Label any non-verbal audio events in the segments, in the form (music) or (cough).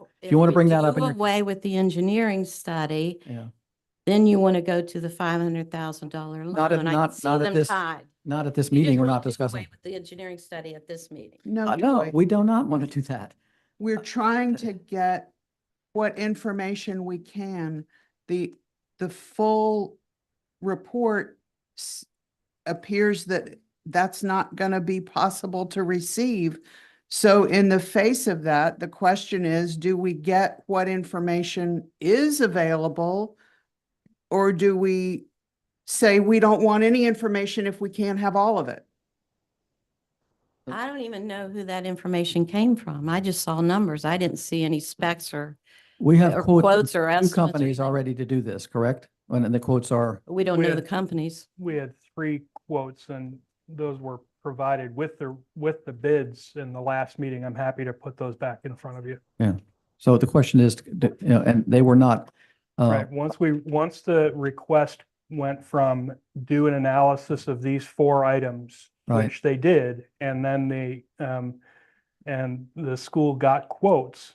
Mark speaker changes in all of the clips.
Speaker 1: So.
Speaker 2: If you wanna
Speaker 1: we
Speaker 2: bring that
Speaker 1: do
Speaker 2: up in your-
Speaker 1: Away with the engineering study,
Speaker 2: Yeah,
Speaker 1: then you want to go to the five hundred thousand dollar loan.
Speaker 2: Not at-
Speaker 1: and I
Speaker 2: not-
Speaker 1: can see
Speaker 2: not at
Speaker 1: them
Speaker 2: this
Speaker 1: tied.
Speaker 2: not at this
Speaker 1: You just
Speaker 2: meeting, we're
Speaker 1: wanna
Speaker 2: not
Speaker 1: do away
Speaker 2: discussing.
Speaker 1: With the engineering study at this meeting.
Speaker 2: Uh,
Speaker 3: No,
Speaker 2: No,
Speaker 3: Joy.
Speaker 2: we do not want to do that. Uh,
Speaker 3: we're trying to get what information we can. The, the full report s- appears that that's not going to be possible to receive. So in the face of that, the question is, do we get what information is available? Or do we say we don't want any information if we can't have all of it?
Speaker 2: Okay.
Speaker 1: I don't even know who that information came from. I just saw numbers. I didn't see any specs or,
Speaker 2: We
Speaker 1: or
Speaker 2: have quotes,
Speaker 1: quotes
Speaker 2: from
Speaker 1: or
Speaker 2: two
Speaker 1: estimates. or
Speaker 2: companies
Speaker 1: anything.
Speaker 2: already to do this, correct? And and the quotes are,
Speaker 1: We don't know the
Speaker 4: With-
Speaker 1: companies.
Speaker 4: we had three quotes and those were provided with the, with the bids in the last meeting. I'm happy to put those back in front of you.
Speaker 2: so the question is, d- you know, and they were not, uh,
Speaker 4: Right, once we, once the request went from do an analysis of these four items,
Speaker 2: Right.
Speaker 4: which they did, and then the, um, and the school got quotes,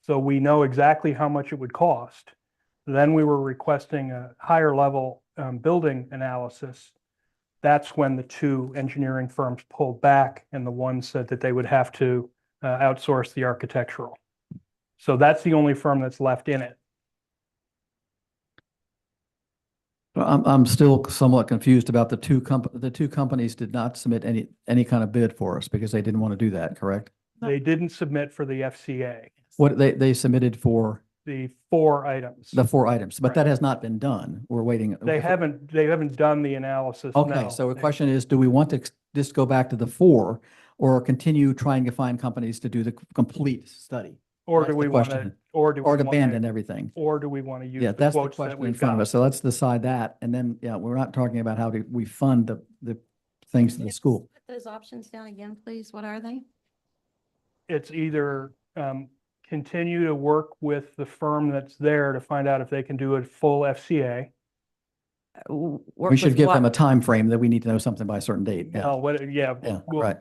Speaker 4: so we know exactly how much it would cost. Then we were requesting a higher level, um, building analysis. That's when the two engineering firms pulled back and the one said that they would have to, uh, outsource the architectural. So that's the only firm that's left in it.
Speaker 2: I'm, I'm still somewhat confused about the two comp, the two companies did not submit any, any kind of bid for us because they didn't want to do that, correct?
Speaker 4: They didn't submit for the FCA,
Speaker 2: What, they, they submitted for
Speaker 4: the four items.
Speaker 2: the four items, but
Speaker 4: Right.
Speaker 2: that has not been done. We're waiting.
Speaker 4: They haven't, they haven't done the analysis.
Speaker 2: Okay,
Speaker 4: no.
Speaker 2: so the
Speaker 4: They-
Speaker 2: question is, do we want to ex- just go back to the four or continue trying to find companies to do the c- complete study?
Speaker 4: Or
Speaker 2: that's
Speaker 4: do
Speaker 2: the
Speaker 4: we want to,
Speaker 2: question.
Speaker 4: or do? we
Speaker 2: Or to
Speaker 4: wanna-
Speaker 2: abandon everything?
Speaker 4: Or do we want to use
Speaker 2: Yeah,
Speaker 4: the
Speaker 2: that's the
Speaker 4: quotes that
Speaker 2: question in
Speaker 4: we've
Speaker 2: front of
Speaker 4: got?
Speaker 2: us. So let's decide that. And then, yeah, we're not talking about how do we fund the, the things to the
Speaker 1: Yes.
Speaker 2: school.
Speaker 1: Put Those options down again, please. What are they?
Speaker 4: It's either um, continue to work with the firm that's there to find out if they can do a full FCA.
Speaker 2: We should give them a time frame that we need to know something by a certain date.
Speaker 4: Uh,
Speaker 2: Yeah,
Speaker 4: what- yeah.
Speaker 2: yeah,
Speaker 4: we'll
Speaker 2: right.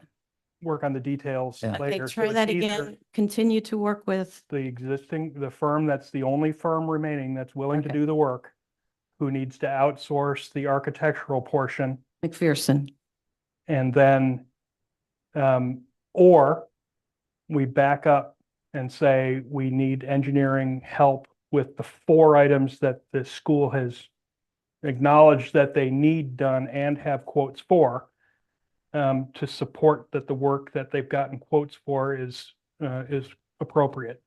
Speaker 4: Work on the details
Speaker 2: Yeah.
Speaker 4: later.
Speaker 1: Okay,
Speaker 4: So
Speaker 1: try
Speaker 4: it's
Speaker 1: that
Speaker 4: either
Speaker 1: again. Continue to work with,
Speaker 4: The existing, the firm that's the only firm remaining that's willing to
Speaker 1: Okay.
Speaker 4: do the work, who needs to outsource the architectural portion.
Speaker 1: McPherson.
Speaker 4: And then, um, or we back up and say we need engineering help with the four items that the school has acknowledged that they need done and have quotes for um, to support that the work that they've gotten quotes for is, uh, is appropriate.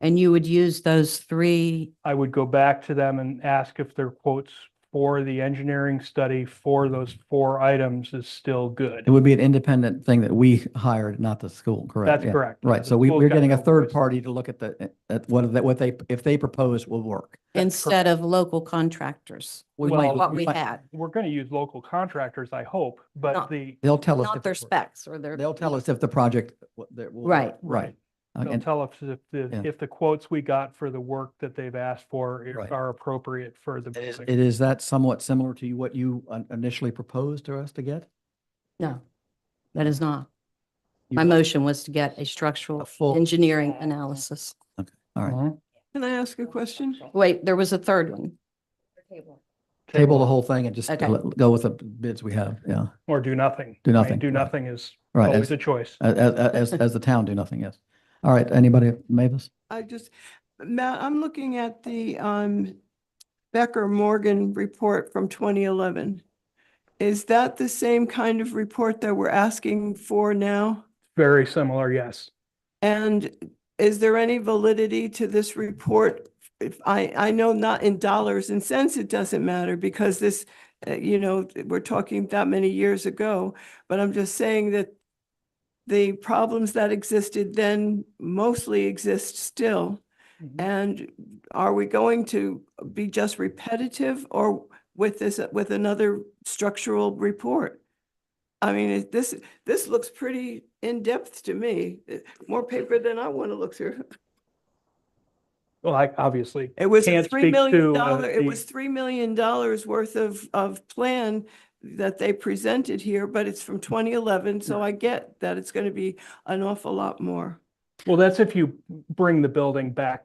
Speaker 1: And you would use those three
Speaker 4: I would go back to them and ask if their quotes for the engineering study for those four items is still good.
Speaker 2: It would be an independent thing that we hired, not the school, correct?
Speaker 4: That's
Speaker 2: Yeah.
Speaker 4: correct. yeah,
Speaker 2: Right.
Speaker 4: the
Speaker 2: So we,
Speaker 4: school's
Speaker 2: we're
Speaker 4: got
Speaker 2: getting a
Speaker 4: no
Speaker 2: third
Speaker 4: choice.
Speaker 2: party to look at the, at what, they- what they, if they propose will work.
Speaker 1: instead of local contractors,
Speaker 2: We
Speaker 4: Well,
Speaker 2: might-
Speaker 1: what we
Speaker 2: might-
Speaker 1: had,
Speaker 4: We're going to use local contractors, I hope, but
Speaker 1: Not-
Speaker 4: the,
Speaker 2: They'll tell us.
Speaker 1: not
Speaker 2: if
Speaker 1: their
Speaker 2: it works.
Speaker 1: specs or their.
Speaker 2: They'll tell us if the project. w- that will work.
Speaker 1: Right.
Speaker 2: Right. Uh,
Speaker 4: they'll
Speaker 2: and-
Speaker 4: tell us if
Speaker 2: Yeah.
Speaker 4: the, if the quotes we got for the work that they've asked for
Speaker 2: Right.
Speaker 4: i- are appropriate for the.
Speaker 2: It is,
Speaker 4: building.
Speaker 2: it is that somewhat similar to you- what you un- initially proposed to us to get?
Speaker 1: No, that is not.
Speaker 2: You-
Speaker 1: My motion was to get a
Speaker 2: A
Speaker 1: structural
Speaker 2: full-
Speaker 1: engineering analysis.
Speaker 2: All right.
Speaker 4: Mhm.
Speaker 5: Can I ask a question?
Speaker 1: Wait, there was a third one.
Speaker 2: Table the whole thing and just
Speaker 1: Okay.
Speaker 2: let- go with the bids we have. Yeah.
Speaker 4: Or do nothing.
Speaker 2: Do
Speaker 4: I mean,
Speaker 2: nothing,
Speaker 4: Do
Speaker 2: right.
Speaker 4: nothing is
Speaker 2: Right. Uh,
Speaker 4: always
Speaker 2: As,
Speaker 4: a choice.
Speaker 2: as, as, as the town do nothing. Yes. All right. Anybody, Mavis?
Speaker 5: I just, Matt, I'm looking at the um Becker Morgan report from twenty eleven. Is that the same kind of report that we're asking for now?
Speaker 4: Very similar, yes.
Speaker 5: And is there any validity to this report? If I, I know not in dollars and cents, it doesn't matter because this, uh, you know, we're talking that many years ago. But I'm just saying that the problems that existed then mostly exist still.
Speaker 4: Mhm.
Speaker 5: And are we going to be just repetitive or with this, with another structural report? I mean, it- this, this looks pretty in-depth to me, eh, more paper than I want to look through. (laughs)
Speaker 4: Well, I obviously,
Speaker 5: It was a
Speaker 4: Can't
Speaker 5: three
Speaker 4: speak
Speaker 5: million
Speaker 4: to, uh,
Speaker 5: dollar, it
Speaker 4: the-
Speaker 5: was three million dollars worth of, of plan that they presented here, but it's from twenty eleven, so I get that it's going to be an awful lot more.
Speaker 4: Well, that's if you bring the building back